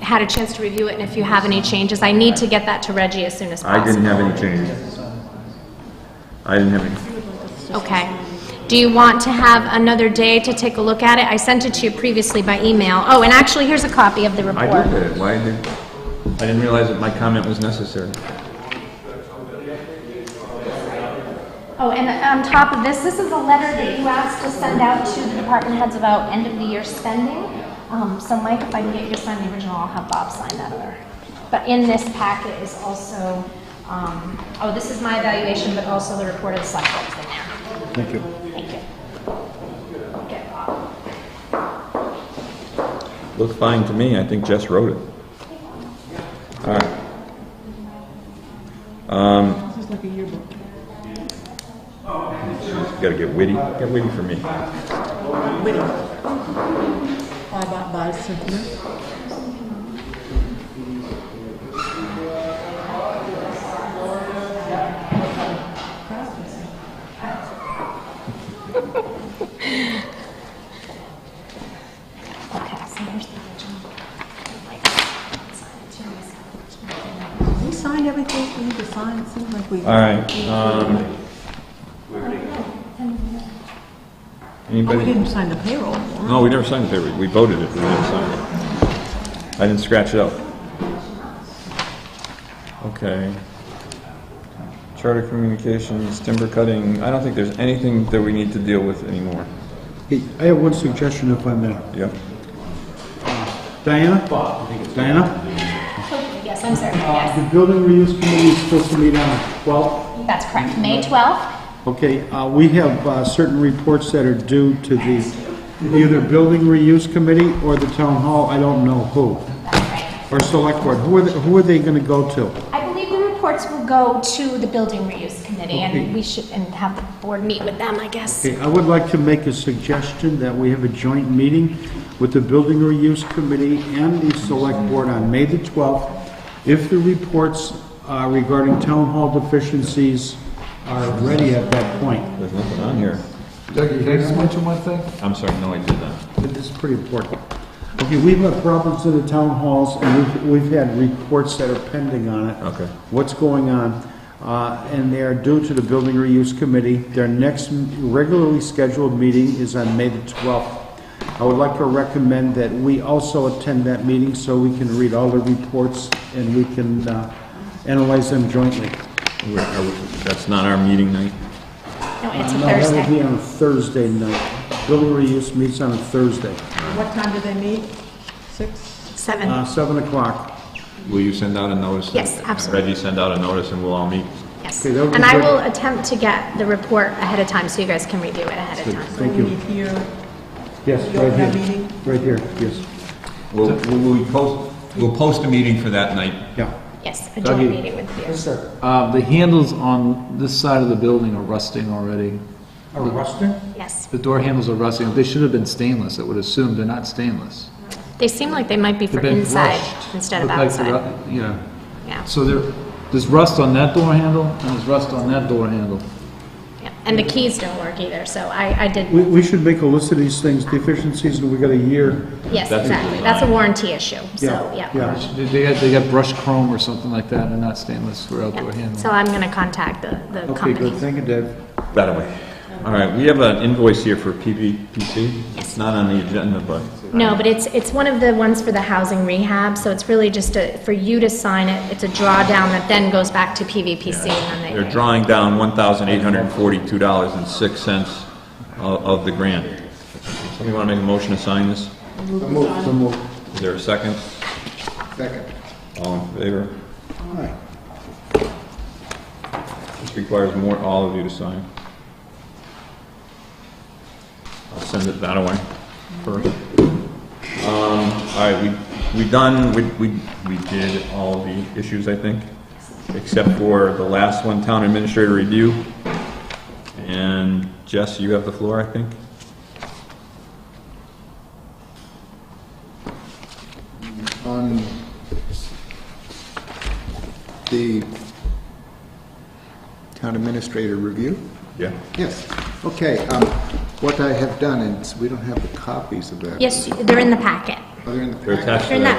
had a chance to review it and if you have any changes. I need to get that to Reggie as soon as possible. I didn't have any changes. I didn't have any. Okay. Do you want to have another day to take a look at it? I sent it to you previously by email. Oh, and actually, here's a copy of the I report. did it, why did, I didn't realize that my comment was necessary. Oh, and on top of this, this is a letter that you asked to send out to the department heads about end of the year spending. Um, so Mike, if I can get you to sign the original, I'll have Bob sign that other. But in this packet is also, um, oh, this is my evaluation, but also the report of the select board's in there. Thank you. Thank you. Okay, Bob. Looks fine to me, I think Jess wrote it. All right. Um, This is like a yearbook. You gotta get witty, get witty for me. Witty. Bye bye bye sentiment. Okay, so here's the original. Like, sign it to myself. We signed everything we need to sign, it seems like we. All right, um, Oh, we anybody? didn't sign the payroll. No, we never signed the paper, we voted it, but we never signed it. I didn't scratch it out. Okay. Charter communications, timber cutting, I don't think there's anything that we need to deal with anymore. Hey, I have one suggestion if I may. Yep. Diana? Diana? Yes, I'm sorry, yes, The building reuse committee is supposed to meet on, well, that's correct, May 12th. okay, uh, we have uh, certain reports that are due to the, either building reuse committee or the town hall, I don't know who, That's right. or select board. Who are, they- who are they gonna go to? I believe the reports will go to the building reuse committee, Okay. and we should, and have the board meet with them, I guess. Okay, I would like to make a suggestion that we have a joint meeting with the building reuse committee and the select board on May the 12th. If the reports uh, regarding town hall deficiencies are ready at that point. There's nothing on here. Doug, you just mentioned one thing? I'm sorry, no, I did not. This is pretty important. Okay, we've had problems in the town halls, and we've, we've had reports that are pending on it. Okay. What's going on? Uh, and they are due to the Building Reuse Committee. Their next m- regularly scheduled meeting is on May the twelfth. I would like to recommend that we also attend that meeting so we can read all the reports and we can, uh, analyze them jointly. We're- are we- That's not our meeting night? No, it's a No, That will be Thursday. on a Thursday night. Building Reuse meets on a Thursday, What time do they meet? Six? uh, Seven, seven o'clock. Will you send out a notice? Yes, absolutely. Reggie, send out a notice and we'll all meet. yes. okay, that would be And I good. will attempt to get the report ahead of time, so you guys can review it ahead of time. Thank We you. meet here. Yes, You open right that here. meeting? Right here, yes. We'll, we'll post, we'll post a meeting for that night. Yeah. Yes, a joint Dougie. meeting with you. Uh, the handles on this side of the building are rusting already. A rustic? Yes. The door handles are rusting. They should have been stainless, I would assume. They're not stainless. They seem like they might be for They've been inside brushed. instead of Look like they're outside. ru- Yeah. Yeah, So there, there's rust on that door handle and there's rust on that door handle. yeah. And the keys don't work either, so I, I did, We, we should make a list of these things, deficiencies, and we got a year. yes, That's a exactly. design. That's a warranty issue, so, yeah. Yeah. They- They got, they got brushed chrome or something like that and not stainless for outdoor Yeah. handles. So I'm gonna contact the, the Okay, company. good, thank you, Dave. That way. All right, we have an invoice here for PVPC. It's not on the agenda, but No, but it's, it's one of the ones for the housing rehab, so it's really just a, for you to sign it, it's a drawdown that then goes back to PVPC and then they're they. drawing down $1,842.06 of of the grant. Somebody want to make a motion to sign this? Is there a second? Second. All in favor? All right. This requires more, all of you to sign. I'll send it that away first. Um, all right, we, we done, we, we, we did all the issues, I think, except for the last one, town administrator review. And Jess, you have the floor, I think? on the town administrator review? Yeah. Yes. Okay, um, what I have done, and we don't have the copies of that. Yes, they're in the packet. Are they in the They're packet? attached They're to in that. that